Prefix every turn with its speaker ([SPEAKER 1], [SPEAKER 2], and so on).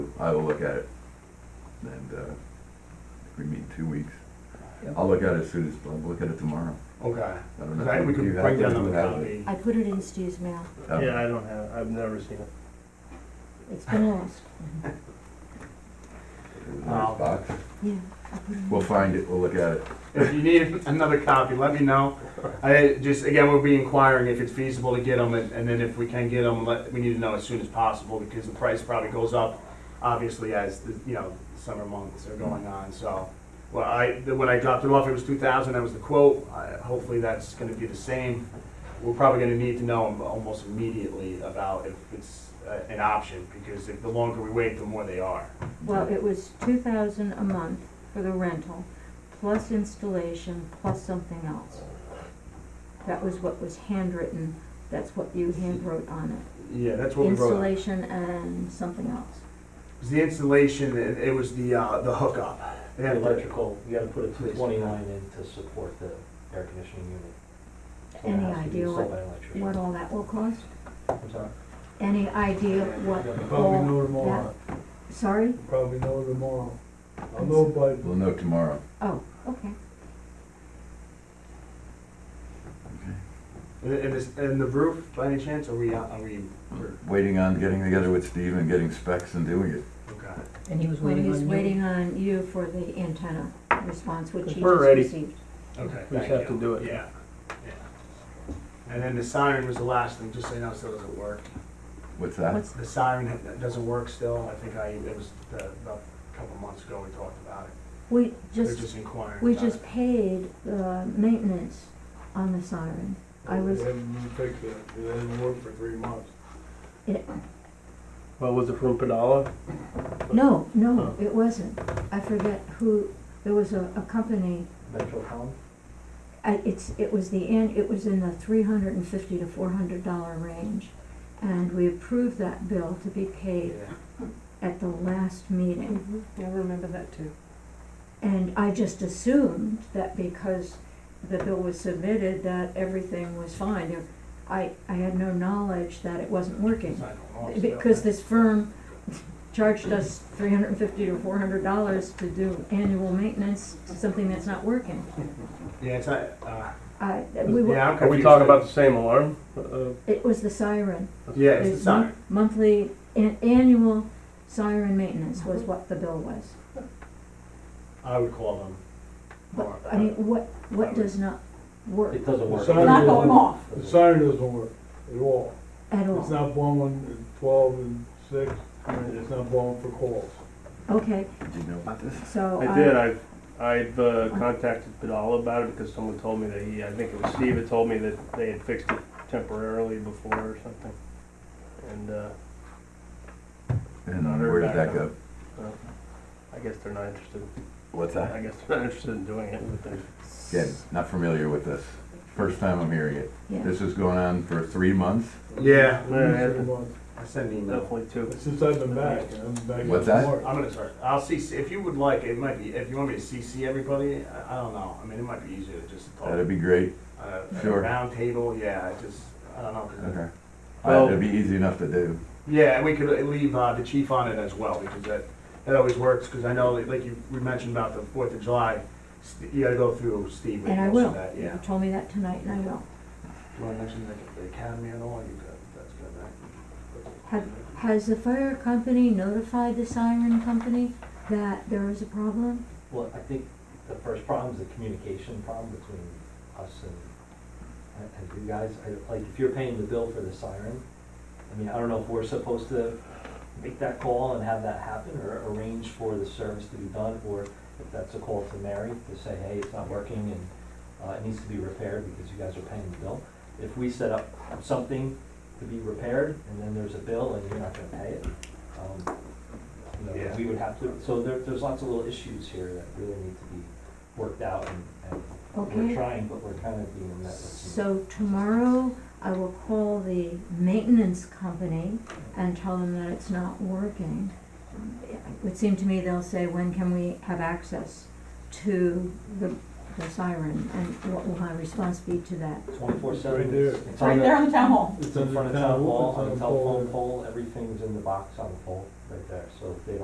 [SPEAKER 1] I will look at it. And, uh, if we meet in two weeks.
[SPEAKER 2] Yep.
[SPEAKER 1] I'll look at it as soon as, I'll look at it tomorrow.
[SPEAKER 3] Okay,
[SPEAKER 1] I don't know.
[SPEAKER 3] because I, we
[SPEAKER 1] Do you
[SPEAKER 3] could
[SPEAKER 1] have
[SPEAKER 3] break
[SPEAKER 1] it?
[SPEAKER 3] down
[SPEAKER 1] Do you
[SPEAKER 3] another
[SPEAKER 1] have it?
[SPEAKER 3] copy.
[SPEAKER 4] I put it in Stu's mail.
[SPEAKER 1] Oh.
[SPEAKER 5] Yeah, I don't have, I've never seen it.
[SPEAKER 4] It's been lost.
[SPEAKER 1] It was in this box.
[SPEAKER 4] Yeah, I put it in.
[SPEAKER 1] We'll find it, we'll look at it.
[SPEAKER 3] If you need another copy, let me know. I, just, again, we'll be inquiring if it's feasible to get them, and and then if we can get them, let, we need to know as soon as possible, because the price probably goes up, obviously, as, the you know, summer months are going on, so. Well, I, the- when I dropped it off, it was two thousand, that was the quote, I, hopefully that's gonna be the same. We're probably gonna need to know almost immediately about if it's uh, an option, because if, the longer we wait, the more they are.
[SPEAKER 4] Well, it was two thousand a month for the rental, plus installation, plus something else. That was what was handwritten, that's what you handwrote on it.
[SPEAKER 3] Yeah, that's what we wrote. on.
[SPEAKER 4] Installation and something else.
[SPEAKER 3] It was the installation, it, it was the, uh, the hookup. They had electrical.
[SPEAKER 2] Electrical, you gotta put a two
[SPEAKER 3] Please.
[SPEAKER 2] twenty line in to support the air conditioning unit. So it
[SPEAKER 4] Any
[SPEAKER 2] has to be
[SPEAKER 4] idea
[SPEAKER 2] sold
[SPEAKER 4] what-
[SPEAKER 2] by an electrician.
[SPEAKER 4] What all that will cost?
[SPEAKER 2] I'm sorry?
[SPEAKER 4] Any idea what
[SPEAKER 6] Probably know
[SPEAKER 4] all
[SPEAKER 6] tomorrow,
[SPEAKER 4] that? Sorry?
[SPEAKER 6] probably know tomorrow. I'll know by
[SPEAKER 1] We'll know tomorrow.
[SPEAKER 4] Oh, okay.
[SPEAKER 3] And, and this, and the roof, by any chance, are we, uh, are we, we're-
[SPEAKER 1] Waiting on getting together with Steve and getting specs and doing it.
[SPEAKER 3] okay.
[SPEAKER 2] And he was
[SPEAKER 4] Well, he's waiting on you for the antenna response, which
[SPEAKER 5] Because
[SPEAKER 4] he
[SPEAKER 5] we're
[SPEAKER 4] just
[SPEAKER 5] ready.
[SPEAKER 4] received.
[SPEAKER 3] Okay,
[SPEAKER 5] We just
[SPEAKER 3] thank
[SPEAKER 5] have to
[SPEAKER 3] you.
[SPEAKER 5] do it.
[SPEAKER 3] Yeah, yeah. And then the siren was the last thing, just so you know, it still doesn't work.
[SPEAKER 1] What's that?
[SPEAKER 4] What's-
[SPEAKER 3] The siren ha- doesn't work still, I think I, it was the, about a couple months ago we talked about it.
[SPEAKER 4] We
[SPEAKER 3] They're
[SPEAKER 4] just
[SPEAKER 3] just inquiring
[SPEAKER 4] We
[SPEAKER 3] about
[SPEAKER 4] just
[SPEAKER 3] it.
[SPEAKER 4] paid the maintenance on the siren. I
[SPEAKER 6] They
[SPEAKER 4] was,
[SPEAKER 6] haven't fixed it, it hasn't worked for three months.
[SPEAKER 5] Well, was it from Padala?
[SPEAKER 4] no, no, it wasn't. I forget who, there was a, a company,
[SPEAKER 2] Metrocom?
[SPEAKER 4] I, it's, it was the end, it was in the three hundred and fifty to four hundred dollar range. And we approved that bill to be paid
[SPEAKER 3] Yeah.
[SPEAKER 4] at the last meeting.
[SPEAKER 7] Mm-hmm. I remember that too.
[SPEAKER 4] And I just assumed that because the bill was submitted, that everything was fine. I, I had no knowledge that it
[SPEAKER 3] uh,
[SPEAKER 4] wasn't working.
[SPEAKER 3] Siren went off still.
[SPEAKER 4] Because this firm charged us three hundred and fifty to four hundred dollars to do annual maintenance to something that's not working.
[SPEAKER 3] Yeah, it's not, uh,
[SPEAKER 4] I, we were,
[SPEAKER 3] yeah, I'm
[SPEAKER 5] Are we
[SPEAKER 3] confused.
[SPEAKER 5] talking about the same alarm? Uh,
[SPEAKER 4] it was the siren.
[SPEAKER 3] Yeah, it's the
[SPEAKER 4] It's
[SPEAKER 3] siren.
[SPEAKER 4] mon- Monthly, an- annual siren maintenance was what the bill was.
[SPEAKER 3] I would call them.
[SPEAKER 4] But,
[SPEAKER 3] more,
[SPEAKER 4] I mean, what, what does not work
[SPEAKER 2] It doesn't work.
[SPEAKER 6] The siren
[SPEAKER 4] Not going
[SPEAKER 6] doesn't-
[SPEAKER 4] off.
[SPEAKER 6] The siren doesn't work at all.
[SPEAKER 4] at
[SPEAKER 6] It's
[SPEAKER 4] all?
[SPEAKER 6] not blowing at twelve and six, and it's not blowing for calls.
[SPEAKER 4] Okay,
[SPEAKER 1] Did you know about this?
[SPEAKER 4] so
[SPEAKER 5] I did,
[SPEAKER 4] I,
[SPEAKER 5] I've, I've uh, contacted Padala about it because someone told me that he, I think it was Steve, had told me that they had fixed it temporarily before or something. And, uh,
[SPEAKER 1] And where did that go?
[SPEAKER 5] I guess they're not interested,
[SPEAKER 1] What's that?
[SPEAKER 5] I guess they're not interested in doing it with the
[SPEAKER 1] Again, not familiar with this. First time I'm hearing it.
[SPEAKER 4] yeah,
[SPEAKER 1] This is going on for three months.
[SPEAKER 3] Yeah.
[SPEAKER 6] At least Three months,
[SPEAKER 3] I send an email.
[SPEAKER 5] Definitely too.
[SPEAKER 6] since I've been back, and I'm back in
[SPEAKER 1] What's that?
[SPEAKER 6] March.
[SPEAKER 3] I'm gonna start, I'll CC, if you would like, it might be, if you want me to CC everybody, I, I don't know, I mean, it might be easier to just talk.
[SPEAKER 1] That'd be great.
[SPEAKER 3] Uh, at a
[SPEAKER 1] sure.
[SPEAKER 3] Round table, yeah, I just, I don't know. 'cause-
[SPEAKER 1] Okay.
[SPEAKER 5] Well-
[SPEAKER 1] That'd be easy enough to do.
[SPEAKER 3] Yeah, and we could leave, uh, the chief on it as well, because that, that always works, because I know, like you, we mentioned about the Fourth of July, St- you gotta go through Steve with
[SPEAKER 4] and I
[SPEAKER 3] most
[SPEAKER 4] will.
[SPEAKER 3] of that, yeah.
[SPEAKER 4] You told me that tonight and I will.
[SPEAKER 3] You wanna mention the, the academy at all, you could, that's good, right?
[SPEAKER 4] Have- Has the fire company notified the siren company that there is a problem?
[SPEAKER 2] Well, I think the first problem is the communication problem between us and, and- and you guys. I- Like, if you're paying the bill for the siren, I mean, I don't know if we're supposed to make that call and have that happen or arrange for the service to be done, or if that's a call to Mary to say, hey, it's not working and, uh, it needs to be repaired because you guys are paying the bill. If we set up something to be repaired and then there's a bill and you're not gonna pay it, um, you know,
[SPEAKER 3] Yeah.
[SPEAKER 2] we would have to, so there, there's lots of little issues here that really need to be worked out and, and
[SPEAKER 4] Okay.
[SPEAKER 2] we're trying, but we're kind of being met with some.
[SPEAKER 4] So tomorrow, I will call the maintenance company and tell them that it's not working. It would seem to me they'll say, when can we have access to the, the siren? And what will my response be to that?
[SPEAKER 2] Twenty-four seven.
[SPEAKER 6] Right there.
[SPEAKER 2] It's on the,
[SPEAKER 7] on the town hall.
[SPEAKER 2] it's in front of
[SPEAKER 6] It's on
[SPEAKER 2] town
[SPEAKER 6] the
[SPEAKER 2] hall,
[SPEAKER 6] town
[SPEAKER 2] on the
[SPEAKER 6] hall.
[SPEAKER 2] telephone pole, everything's in the box on the pole right there, so if they don't